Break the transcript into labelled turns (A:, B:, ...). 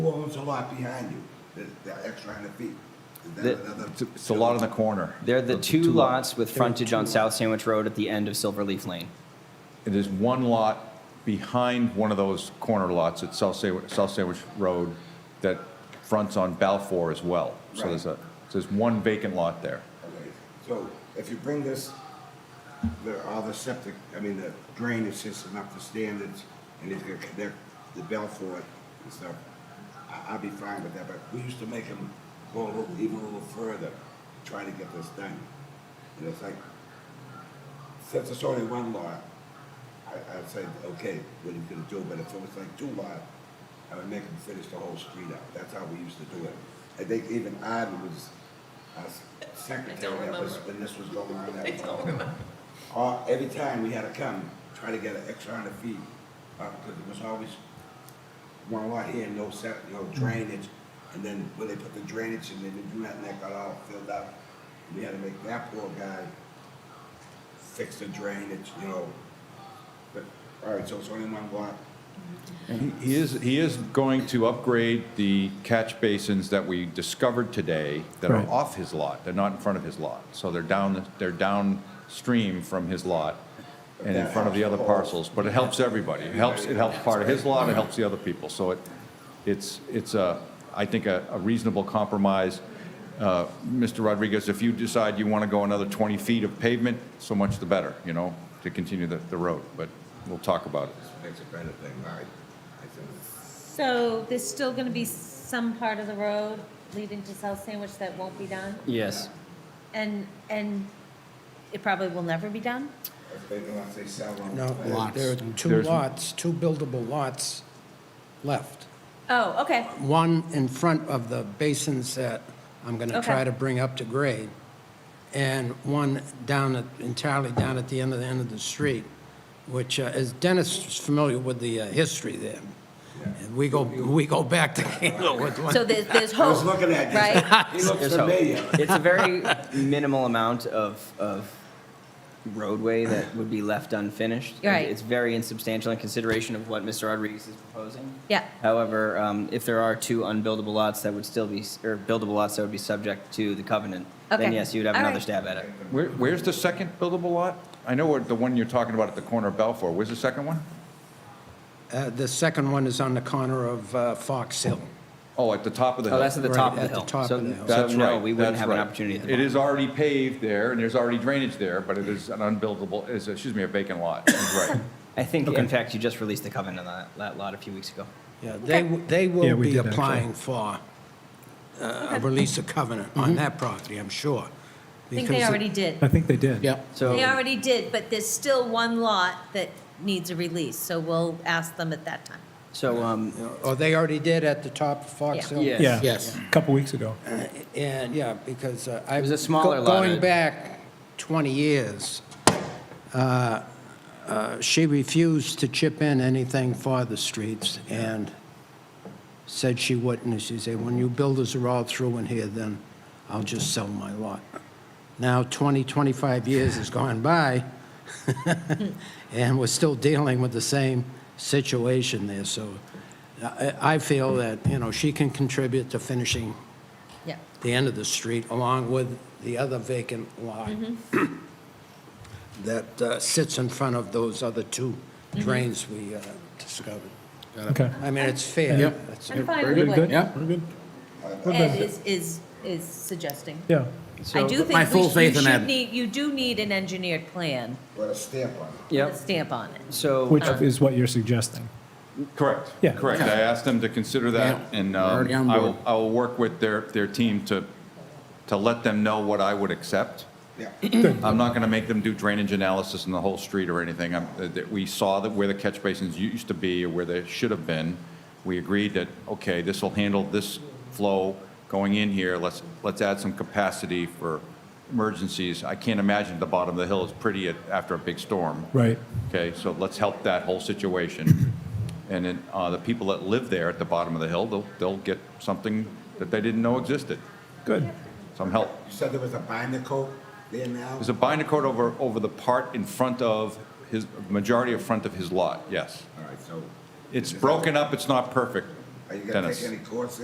A: Who owns a lot behind you, that, that extra hundred feet? Is that
B: The-
A: another-
C: It's- It's a lot in the corner.
B: They're the
C: It's
B: two
C: lot-
B: lots with frontage on South Sandwich Road at the end of Silverleaf Lane.
C: It is one lot behind one of those corner lots at South Sandwich, South Sandwich Road that fronts on Balfour as well. So there's a, so there's one vacant lot there.
A: Okay, So if you bring this, the, all the septic, I mean, the drainage system up to standards, and it's gonna connect the Belfort and stuff, I, I'll be fine with that, but we used to make them go a little, even a little further, try to get this done. And it's like, since it's only one lot, I, I'd say, okay, what are you gonna do, but if it was like two lot, I would make them finish the whole street out, that's how we used to do it. I think even Iden was, uh, secretary of us
D: remember.
A: when this was going on.
D: I don't remember.
A: All, every time we had to come, try to get an extra hundred feet, uh, because it was always one lot here, no set, no drainage. And then when they put the drainage in, they didn't do that, and that got all filled up. We had to make that poor guy fix the drainage, you know. But, all right, so it's only one lot.
C: He- He is, he is going to upgrade the catch basins that we discovered today that are
E: Right.
C: off his lot. They're not in front of his lot. So they're down, they're downstream from his lot and in front of the other parcels. But it helps everybody. It helps, it helps part of his lot, it helps the other people. So it, it's, it's a, I think, a a reasonable compromise. Uh, Mr. Rodriguez, if you decide you want to go another 20 feet of pavement, so much the better, you know, to continue the, the road. But we'll talk about it.
A: Makes a better thing, all right. I think-
F: So there's still gonna be some part of the road leading to South Sandwich that won't be done?
B: Yes.
F: And, and it probably will never be done?
A: If they, unless they sell them.
E: No, there- there are two
C: There's-
E: lots, two buildable lots left.
F: Oh, okay,
E: One in front of the basins that I'm going to
F: Okay.
E: try to bring up to grade, and one down, at- entirely down at the end of the end of the street, which uh, is, Dennis is familiar with the uh, history there. And We go, we go back to Englewood.
F: so there's, there's
A: I was
F: hope,
A: looking at you.
F: Oh, right?
A: He looks
B: There's hope.
A: familiar.
B: It's a very minimal amount of, of roadway that would be left unfinished.
F: Right.
B: It's very insubstantial in consideration of what Mr. Rodriguez is proposing.
F: Yeah.
B: However, um, if there are two unbuildable lots that would still be, s- or buildable lots that would be subject to the covenant, then
F: Okay.
B: yes, you'd have
F: All
B: another
F: right.
B: stab at it.
C: Where, where's the second buildable lot? I know what the one you're talking about at the corner of Balfour, where's the second one?
E: Uh, The second one is on the corner of uh, Fox Hill.
C: Oh, at the top of the
B: Oh, that's at
C: hill.
B: the
E: Right,
B: top of the
E: at the
B: hill.
E: top
B: So-
E: of the hill.
B: So
C: That's
B: no,
C: right,
B: we wouldn't
C: that's
B: have an
C: right.
B: opportunity at the
C: It
B: moment.
C: is already paved there, and there's already drainage there, but it is an unbuildable, is, excuse me, a vacant lot, He's right.
B: I think, in fact, you just released the covenant on that- that lot a few weeks ago.
E: Yeah, they, w- they
G: Yeah,
E: will
G: we
E: be
G: did, actually.
E: applying for uh, a release of covenant
G: Mm-hmm.
E: on that property, I'm sure.
F: I think they already
G: I
F: did.
G: think they did.
E: Yeah.
B: So.
F: They already did, but there's still one lot that needs a release, so we'll ask them at that time.
B: So, um,
E: Or they already did at the top of Fox
F: Yeah.
E: Hill.
B: Yes.
G: Yeah.
H: Yes.
G: A couple weeks ago.
E: And, yeah, because uh, I.
B: It was a smaller
E: go-
B: lot.
E: Going back 20 years, uh, uh, she refused to chip in anything for the streets and said she wouldn't. And she said, when you builders are all through in here, then I'll just sell my lot. Now 20, 25 years has gone by, and we're still dealing with the same situation there. So I I feel that, you know, she can contribute to finishing
F: Yeah.
E: the end of the street, along with the other vacant lot that uh, sits in front of those other two drains we uh, discovered.
G: Okay.
E: I mean, it's fair.
G: Yep.
E: That's-
F: I'm fine
G: We're
F: with
G: good?
F: what
H: Yeah.
G: We're good?
F: Ed is, is, is suggesting.
G: Yeah.
F: I do
H: my
F: think
H: full
F: we sh- you
H: faith in
F: should
H: Ed.
F: need, you do need an engineered plan
A: With a stamp on it.
F: with
B: yep,
F: a stamp on it.
B: so.
G: Which is what you're suggesting.
C: Correct.
G: Yeah.
C: Correct, I asked them to consider that,
H: Yeah,
C: and
H: we're already
C: um,
H: on
C: I
H: board.
C: will, I will work with their, their team to, to let them know what I would accept.
A: Yeah.
C: I'm not going to make them do drainage analysis in the whole street or anything. I'm- uh, that We saw that where the catch basins used to be or where they should have been. We agreed that, okay, this will handle this flow going in here. Let's, let's add some capacity for emergencies. I can't imagine the bottom of the hill is pretty at- after a big storm.
G: Right.
C: Okay, so let's help that whole situation. And then uh, the people that live there at the bottom of the hill, they'll, they'll get something that they didn't know existed,
G: Good.
C: some help.
A: You said there was a binder coat there now?
C: There's a binder coat over, over the part in front of his, majority of front of his lot, yes.
A: All right, so
C: It's broken up, it's not perfect.
A: Are you gonna
C: Dennis.
A: take any courses?